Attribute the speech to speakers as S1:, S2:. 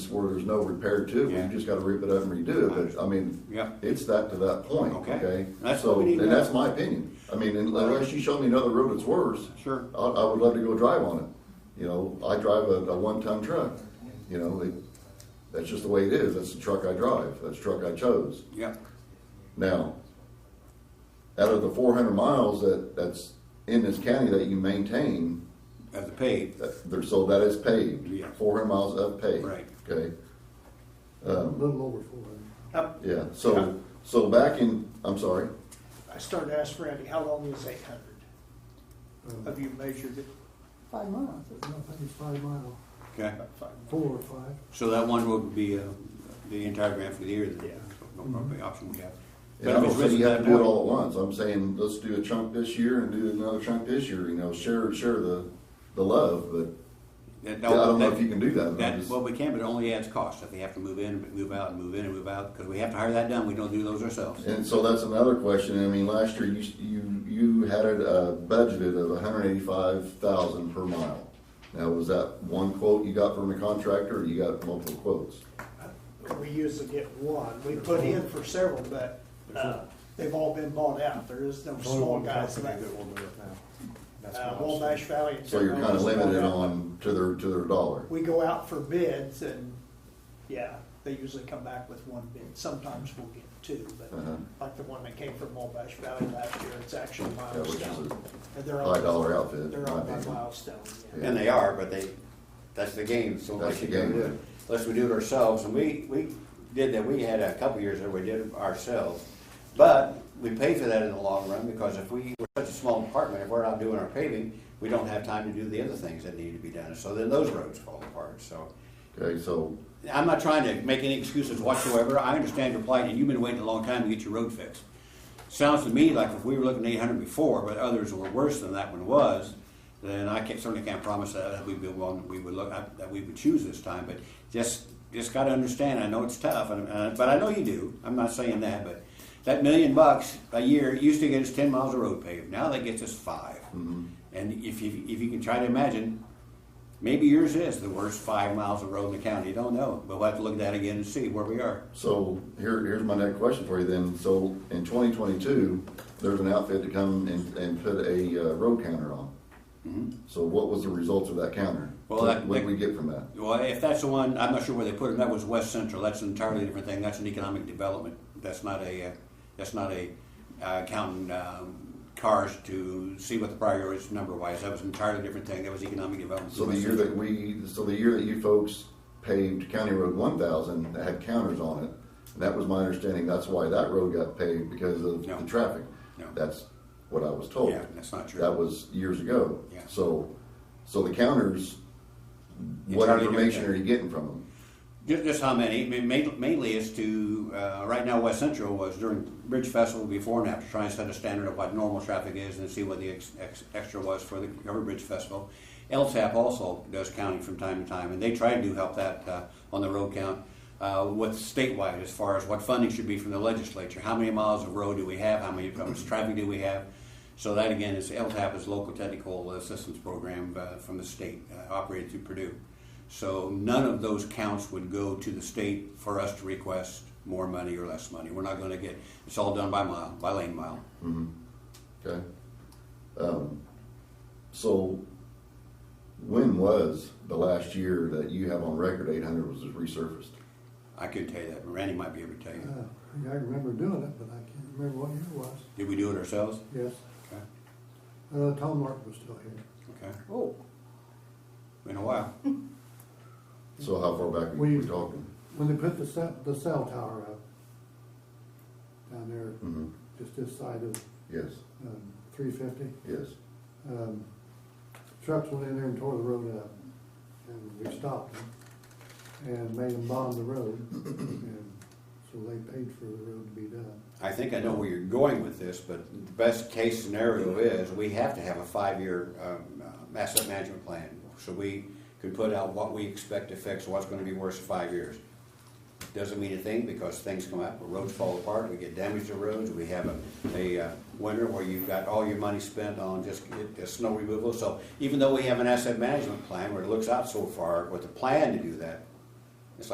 S1: where there's no repair to it,
S2: Yeah.
S1: you just gotta rip it up and redo it, but, I mean,
S2: Yeah.
S1: it's that to that point,
S2: Okay.
S1: okay?
S2: That's what
S1: So,
S2: we need
S1: and
S2: to know.
S1: that's my opinion, I mean, unless you show me another road that's worse,
S2: Sure.
S1: I, I would love to go drive on it, you know, I drive a, a one-ton truck, you know, it, that's just the way it is, that's the truck I drive, that's the truck I chose.
S2: Yeah.
S1: Now, out of the four hundred miles that, that's in this county that you maintain,
S2: As a paved.
S1: that, there, so that is paved.
S2: Yeah.
S1: Four hundred miles of paved.
S2: Right.
S1: Okay, Um,
S3: A little over four hundred.
S4: Up,
S1: yeah,
S2: Yeah.
S1: so, so back in, I'm sorry,
S4: I started to ask Randy, how long is eight hundred? Have you measured it?
S3: Five miles. I think it's five mile,
S2: Okay.
S4: About five miles.
S3: four or five.
S2: So that one would be uh, the entire grant for the year. Then.
S4: Yeah.
S2: No probably option we have.
S1: and I
S2: if
S1: don't
S2: it's
S1: say you
S2: written
S1: have to
S2: down-
S1: do it all at once, I'm saying, let's do a chunk this year and do another chunk this year, you know, share, share the, the love, but
S2: That,
S1: I
S2: that,
S1: don't know
S2: that-
S1: if you can do that. I'm
S2: That,
S1: just-
S2: well, we can, but it only adds cost. If we have to move in, move out, and move in and move out, because we have to hire that done. We don't do those ourselves.
S1: And so that's another question. I mean, last year you, you, you had it uh, budgeted of hundred eighty-five thousand per mile. Now, was that one quote you got from the contractor or you got multiple quotes?
S4: We usually get one. We put in for several, but, uh, they've all been bought out. There is no small guys left. Uh, Wabash Valley. and
S1: So you're kind of
S4: Terrell's bought
S1: limited
S4: out.
S1: on to their, to their dollar.
S4: We go out for bids and, yeah, they usually come back with one bid. Sometimes we'll get two,
S1: Uh-huh.
S4: but like the one that came from Wabash Valley last year, it's actually
S1: Yeah, which is
S4: milestone. And they're
S1: a
S4: all-
S1: high dollar outfit. in
S4: They're
S1: my
S4: on by
S1: opinion.
S4: milestone, yeah.
S2: And they are, but they, that's the game, so
S1: That's
S2: unless
S1: the
S2: you can
S1: game.
S2: do it, unless we do it ourselves, and we, we did that, we had a couple years there, we did it ourselves. But we pay for that in the long run, because if we, we're such a small department, if we're not doing our paving, we don't have time to do the other things that need to be done, so then those roads fall apart, so.
S1: Okay, so,
S2: I'm not trying to make any excuses whatsoever. I understand your plight, and you've been waiting a long time to get your road fixed. Sounds to me like if we were looking at eight hundred before, but others were worse than that one was, then I can't, certainly can't promise that, that we'd be one that we would look, that we would choose this time, but just, just gotta understand, I know it's tough, and, uh, but I know you do. I'm not saying that, but that million bucks a year used to get us ten miles of road paved. Now that gets us five. And if you, if you can try to imagine, Maybe yours is the worst five miles of road in the county, don't know, but we'll have to look at that again and see where we are.
S1: so here, here's my next question for you then. So in twenty twenty-two, there's an outfit to come and, and put a uh, road counter on.
S2: Mm-hmm.
S1: So what was the results of that counter?
S2: Well, that-
S1: What did we get from that?
S2: Well, if that's the one, I'm not sure where they put it, that was West Central, that's an entirely different thing, that's an economic development. That's not a, uh, that's not a, uh, counting, um, cars to see what the priority is number wise, that was an entirely different thing, that was economic development.
S1: So the year that we, so the year that you folks paved County Road one thousand, that had counters on it, and that was my understanding, that's why that road got paved because of
S2: No.
S1: the traffic.
S2: No.
S1: That's what I was told.
S2: Yeah, that's not true.
S1: That was years ago.
S2: Yeah.
S1: So, so the counters, what
S2: Entirely
S1: information
S2: different.
S1: are you getting from them?
S2: Just, just how many? I mean, ma- mainly is to, uh, right now West Central was during Bridge Festival before and after, trying to set a standard of what normal traffic is and see what the ex- ex- extra was for the Cover Bridge Festival. LTAP also does counting from time to time, and they try to help that uh, on the road count uh, with statewide as far as what funding should be from the legislature. How many miles of road do we have? How many, how much traffic do we have? So that again is LTAP is Local Technical Assistance Program uh, from the state, uh, operated through Purdue. So none of those counts would go to the state for us to request more money or less money. We're not gonna get, it's all done by mile, by lane mile.
S1: Mm-hmm. Okay? Um, So, when was the last year that you have on record eight hundred was resurfaced?
S2: I couldn't tell you that, but Randy might be able to tell
S3: Uh,
S2: you.
S3: I remember doing it, but I can't remember what year it was.
S2: Did we do it ourselves?
S3: Yes,
S2: Okay,
S3: uh, Tom Martin was still here.
S2: okay.
S4: Oh,
S2: Been a while.
S1: So how far back we we
S3: We-
S1: talking?
S3: When they put the cell, the cell tower up down there,
S1: Mhm.
S3: just this side of,
S1: Yes,
S3: um, three fifty,
S1: yes.
S3: um, trucks went in there and tore the road up. And we stopped them and made them bond the road. And so they paid for the road to be done.
S2: I think I know where you're going with this, but the best case scenario is we have to have a five-year um, uh, asset management plan. So we could put out what we expect to fix, what's gonna be worse in five years. Doesn't mean a thing because things come up, roads fall apart, we get damage to roads, we have a, a uh, winter where you've got all your money spent on just, get the snow removal. So even though we have an asset management plan where it looks out so far with a plan to do that,